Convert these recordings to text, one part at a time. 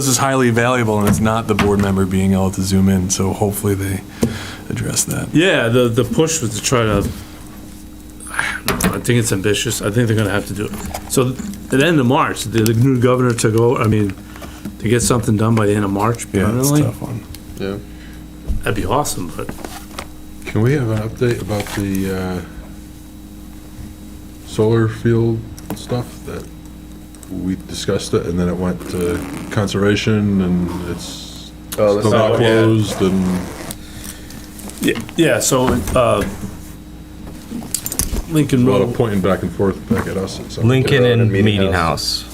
This is highly valuable, and it's not the board member being able to zoom in, so hopefully they address that. Yeah, the, the push was to try to, I think it's ambitious, I think they're gonna have to do it. So, at the end of March, the, the new governor took over, I mean, to get something done by the end of March Yeah, it's a permanently, tough one. Yeah. that'd be awesome, but Can we have an update about the uh, solar field stuff that we discussed it and then it went to conservation and it's Oh, still that's not oh, yeah. closed and, Yeah, yeah, so, uh, Lincoln a lot of Road, pointing back and forth back at us. at some- Lincoln Road and and Meeting Meeting House.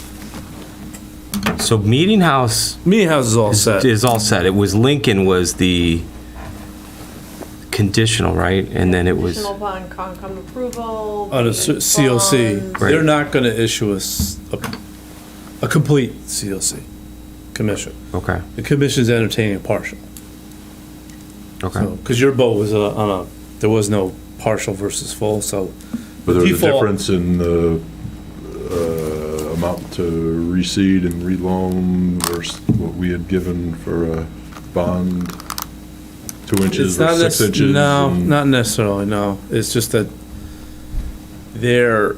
So Meeting House Meeting House is all set. is all set. It was Lincoln was the conditional, right? And then it was, Conditional upon Concom approval. On a payment s- COC, bonds. Right. they're not gonna issue us a, a complete COC, commission. okay, The commission's entertaining a partial. okay. Because your vote was uh, on a, there was no partial versus full, so. But there was a Default. difference in the uh, amount to reseed and reloan versus what we had given for a bond, two inches It's not or six nec- inches. No, and- not necessarily, no. It's just that they're,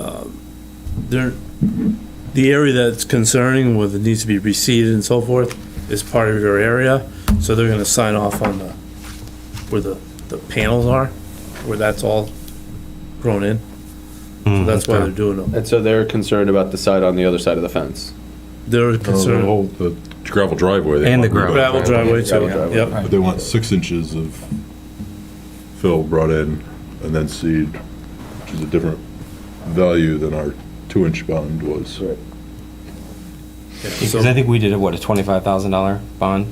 um, they're, the area that's concerning with it needs to be reseeded and so forth is part of your area, so they're gonna sign off on the, where the, the panels are, where that's all grown in. Hmm, So That's why they're doing them. And so they're concerned about the side on the other side of the fence. They're No, the concerned, whole, the gravel driveway. they And want the gravel. rebuilt. gravel driveway too, Gravel driveway. yep. But they want six inches of fill brought in and then seed, which is a different value than our two-inch bond was. Because I think we did, a what, a twenty-five thousand dollar bond?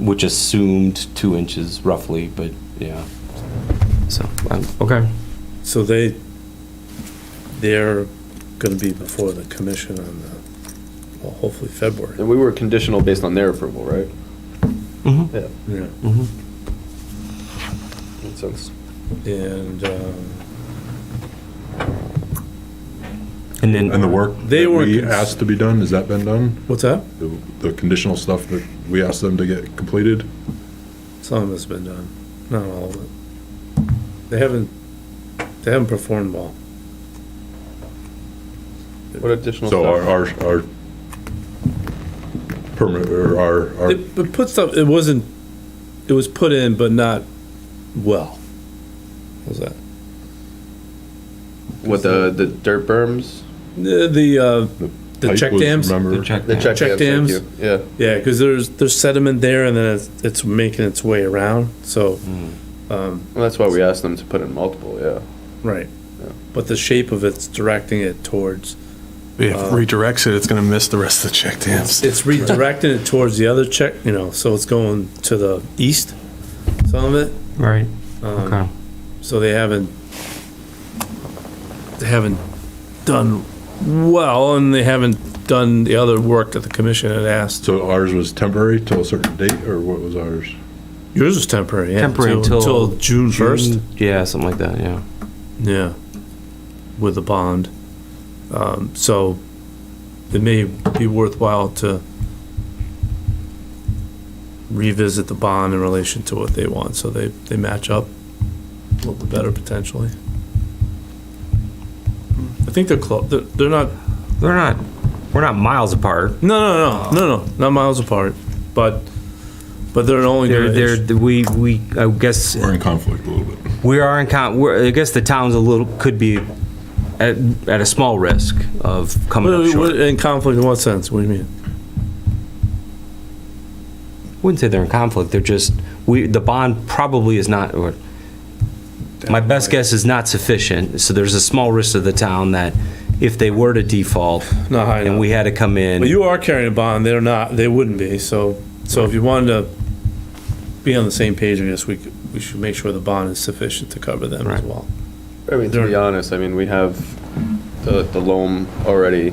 Which assumed two inches roughly, but yeah. So, um, okay, So they, they're gonna be before the commission on the, well, hopefully February. And we were conditional based on their approval, right? Mhm. Yeah, Yeah. mm-hmm. makes sense. And, um, and then. And the work They that were we cons- asked to be done, has that been done? what's that? The the conditional stuff that we asked them to get completed? Some of it's been done, not all of it. They haven't, they haven't performed well. What additional So our, stuff? our, our permit, or our, our, It, but put stuff, it wasn't, it was put in, but not well. What was that? With the, the dirt berms? The, the, uh, the pipe check was, dams? Remember? The check Check dams. dams, thank you. Yeah, Yeah, because there's, there's sediment there and then it's, it's making its way around, so, um, well, that's why we asked them to put in multiple, yeah. Right. Yeah. But the shape of it's directing it towards, If it redirects it, it's gonna miss the rest of the check dams. it's redirecting it towards the other check, you know, so it's going to the east, some of it. Right, Um, okay. So they haven't, they haven't done well, and they haven't done the other work that the commission had asked. So ours was temporary till a certain date, or what was ours? Yours was temporary, yeah. Temporary until- Till June first, Yeah, something like that, yeah. yeah, with the bond. Um, so it may be worthwhile to revisit the bond in relation to what they want, so they, they match up a little bit better potentially. I think they're close, they're, they're not, They're not, we're not miles apart. no, no, no, no, no, not miles apart, but, but they're only. They're, gonna issue- they're, we, we, I guess, We're in conflict a little bit. we are in con, we're, I guess the town's a little, could be at, at a small risk of coming up What- what- short. In conflict in what sense, what do you mean? Wouldn't say they're in conflict, they're just, we, the bond probably is not, or, my best guess is not sufficient, so there's a small risk to the town that if they were to default Not high enough. and we had to come But in, you are carrying a bond, they're not, they wouldn't be, so, so if you wanted to be on the same page, I guess we, could- we should make sure the bond is sufficient to cover them as Right. well. I mean, to be honest, I mean, we have the, the loam already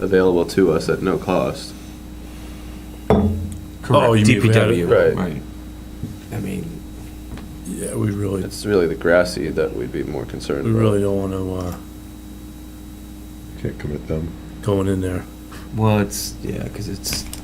available to us at no cost. Oh, you mean we had DPW. it- right. I mean, Yeah, we really, It's really the grassy that we'd be more concerned we about. really don't wanna, uh, Can't commit them. going in there. Well, it's, yeah, because it's